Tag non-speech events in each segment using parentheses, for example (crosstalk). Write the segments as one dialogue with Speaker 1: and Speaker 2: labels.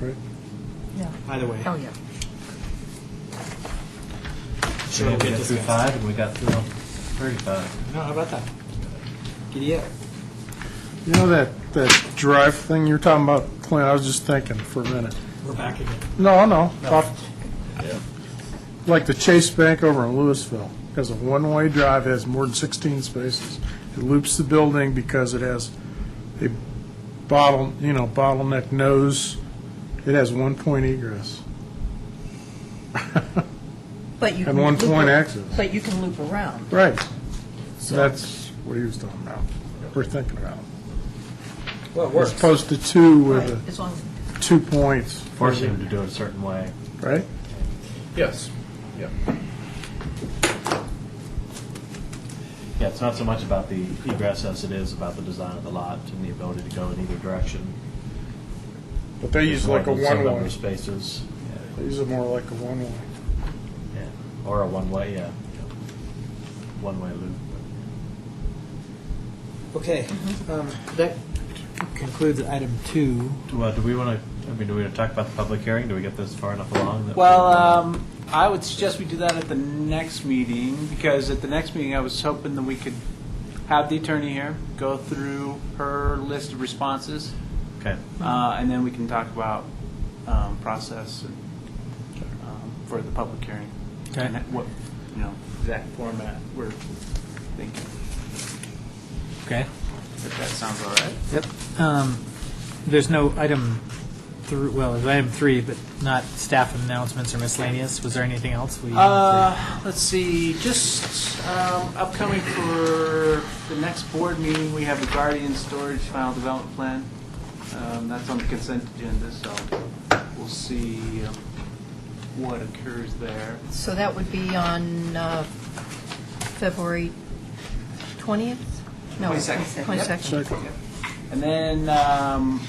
Speaker 1: right?
Speaker 2: Yeah.
Speaker 3: Either way.
Speaker 2: Oh, yeah.
Speaker 3: Sure, we'll
Speaker 4: we
Speaker 3: get
Speaker 4: got through
Speaker 3: discussed.
Speaker 4: five, and we got through thirty-five.
Speaker 3: No, how about that? Giddy up.
Speaker 1: You know that, that drive thing you were talking about, Clint, I was just thinking for a minute.
Speaker 3: We're back again.
Speaker 1: No, no, off- like the Chase Bank over in Louisville, has a one-way drive, has more than 16 spaces. It loops the building because it has a bottle, you know, bottleneck nose. It has one point egress.
Speaker 2: But
Speaker 1: And
Speaker 2: you can
Speaker 1: one
Speaker 2: loop
Speaker 1: point
Speaker 2: ar-
Speaker 1: exit.
Speaker 2: But you can loop around.
Speaker 1: Right.
Speaker 2: So
Speaker 1: That's what he was talking about, we're thinking about.
Speaker 3: Well, it
Speaker 1: As
Speaker 3: works.
Speaker 1: opposed to two
Speaker 2: Right,
Speaker 1: with
Speaker 2: as long as
Speaker 1: a two points,
Speaker 4: Forcing them to do it a certain way.
Speaker 1: right?
Speaker 5: Yes, yeah.
Speaker 4: Yeah, it's not so much about the egress as it is about the design of the lot and the ability to go in either direction.
Speaker 1: But they use like a
Speaker 4: Some number
Speaker 1: one-way.
Speaker 4: of Spaces, yeah,
Speaker 1: They use it more like a one-way.
Speaker 4: yeah. or a one-way, yeah. One-way loop.
Speaker 3: Okay,
Speaker 6: Mm-hmm.
Speaker 3: um, that concludes item two.
Speaker 4: Do, uh, do we want to, I mean, do we want to talk about the public hearing? Do we get this far enough along? that we-
Speaker 6: Well, um, I would suggest we do that at the next meeting, because at the next meeting, I was hoping that we could have the attorney here, go through her list of responses,
Speaker 4: Okay,
Speaker 6: uh, and then we can talk about, um, process and, um, for the public hearing.
Speaker 3: Okay.
Speaker 6: And what, you know, exact format we're thinking,
Speaker 3: Okay.
Speaker 6: if that sounds all right.
Speaker 3: Yep. Um, There's no item three, well, there's item three, but not staff announcements or miscellaneous. Was there anything else? we-
Speaker 6: Uh, let's see, just um, upcoming for the next board meeting, we have the Guardian Storage Final Development Plan. Um, That's on the consent agenda, so we'll see um, what occurs there.
Speaker 2: So that would be on uh, February 20th? No,
Speaker 6: 22nd.
Speaker 2: 22nd.
Speaker 1: Second.
Speaker 6: And then um,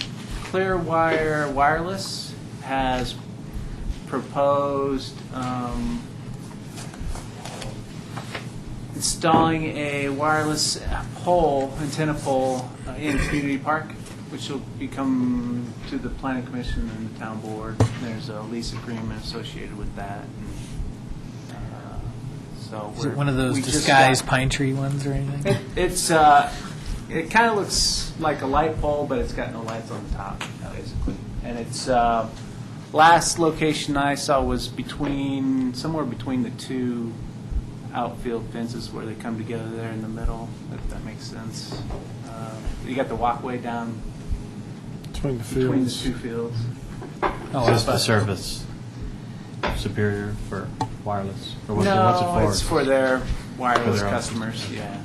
Speaker 6: Clearwire Wireless has proposed um, installing a wireless pole, antenna pole uh, in Community Park, which will become to the planning commission and the town board. There's a lease agreement associated with that. and, uh, So
Speaker 3: Is it
Speaker 6: we're-
Speaker 3: one of those
Speaker 6: we just
Speaker 3: disguised
Speaker 6: got-
Speaker 3: pine tree ones or anything?
Speaker 6: it, it's uh, it kind of looks like a light bulb, but it's got no lights on the top, basically. And it's uh, last location I saw was between somewhere between the two outfield fences where they come together there in the middle. If that makes sense. Uh, you got the walkway down
Speaker 1: Between the
Speaker 6: between
Speaker 1: (laughs)
Speaker 6: the
Speaker 1: fields.
Speaker 6: two fields.
Speaker 3: Oh,
Speaker 4: is this the service superior for wireless? or what's it- what's it
Speaker 6: no, it's for their wireless
Speaker 4: For their own.
Speaker 6: customers. Yeah.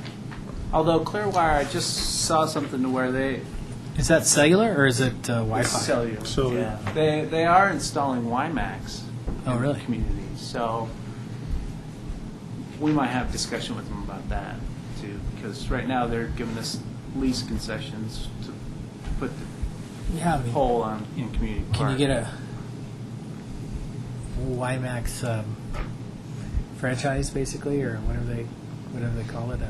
Speaker 6: Although Clearwire, I just saw something to where they
Speaker 3: Is that cellular or is it uh, Wi-Fi?
Speaker 6: It's Cellular.
Speaker 1: Cellular.
Speaker 6: Yeah. They, they are installing WiMAX.
Speaker 3: Oh,
Speaker 6: in
Speaker 3: really?
Speaker 6: Communities, so we might have discussion with them about that too, because right now they're giving us lease concessions to, to put
Speaker 3: Yeah, I
Speaker 6: the
Speaker 3: mean,
Speaker 6: pole on, in community
Speaker 3: Can you
Speaker 6: park.
Speaker 3: get a WiMAX um, franchise, basically, or whatever they, whatever they call it? uh,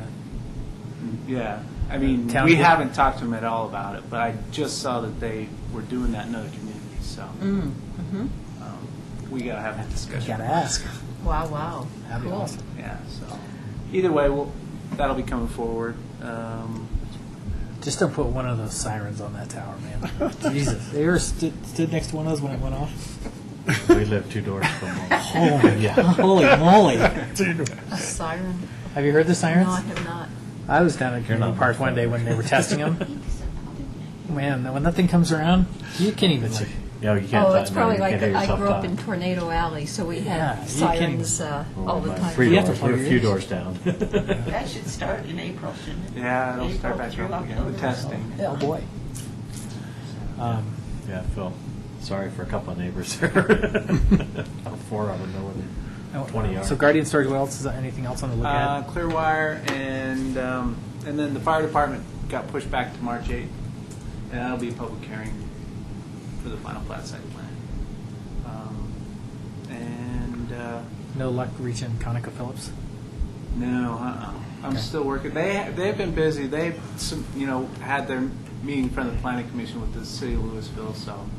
Speaker 6: Mm, Yeah, I mean,
Speaker 3: Town
Speaker 6: we
Speaker 3: get-
Speaker 6: haven't talked to them at all about it, but I just saw that they were doing that in other communities, so.
Speaker 2: Mm,
Speaker 6: um, We gotta have that discussion.
Speaker 3: Mm. Gotta ask.
Speaker 2: mm-hmm. Wow, wow.
Speaker 3: That'd be
Speaker 2: Cool.
Speaker 3: awesome.
Speaker 6: Yeah, so, either way, we'll, that'll be coming forward. Um,
Speaker 3: Just don't put one of those sirens on that tower, man. Jesus, they were stood, stood next to one of those when it went off.
Speaker 4: for? We live two doors from
Speaker 6: (laughs)
Speaker 4: one.
Speaker 6: Oh,
Speaker 3: (laughs) Holy, holy moly! Have
Speaker 2: A siren?
Speaker 3: you heard the sirens?
Speaker 2: No, I have not.
Speaker 3: I was down at Community
Speaker 4: not
Speaker 3: Park one day when they were testing them. Man, when that thing comes around, you can't even see.
Speaker 4: Yeah, you can't.
Speaker 2: Oh,
Speaker 4: talk-
Speaker 2: it's
Speaker 4: no,
Speaker 2: probably
Speaker 4: you
Speaker 2: like,
Speaker 4: can't hear
Speaker 2: I
Speaker 4: yourself
Speaker 2: grew up
Speaker 4: talk. Oh,
Speaker 2: in Tornado Alley, so we
Speaker 3: Yeah,
Speaker 2: had
Speaker 3: you
Speaker 2: sirens uh, all the
Speaker 4: Well,
Speaker 2: time.
Speaker 4: Three
Speaker 3: You have to
Speaker 4: doors,
Speaker 3: plug
Speaker 4: we're
Speaker 3: your
Speaker 4: a few
Speaker 3: ears.
Speaker 4: doors down. (laughs)
Speaker 7: That should start in April, shouldn't it?
Speaker 6: yeah, it'll start back
Speaker 7: April
Speaker 6: up
Speaker 7: through
Speaker 6: again, the
Speaker 7: October.
Speaker 6: testing.
Speaker 3: Oh boy. Um,
Speaker 4: Yeah, Phil, sorry for a couple of neighbors (laughs) there. Four of them, no
Speaker 3: oh,
Speaker 4: one, 20 yards.
Speaker 3: So Guardian Storage, what else is there? Anything else on the look
Speaker 6: Uh,
Speaker 3: at?
Speaker 6: Clearwire and, um, and then the fire department got pushed back to March eighth. And that'll be a public hearing for the final plat site plan. Um, And, uh,
Speaker 3: No luck reaching Conoco Phillips.
Speaker 6: No, uh-uh. I'm
Speaker 3: Okay.
Speaker 6: still working. They, they've been busy. They've, some- you know, had their meeting in front of the planning commission with the city of Louisville, so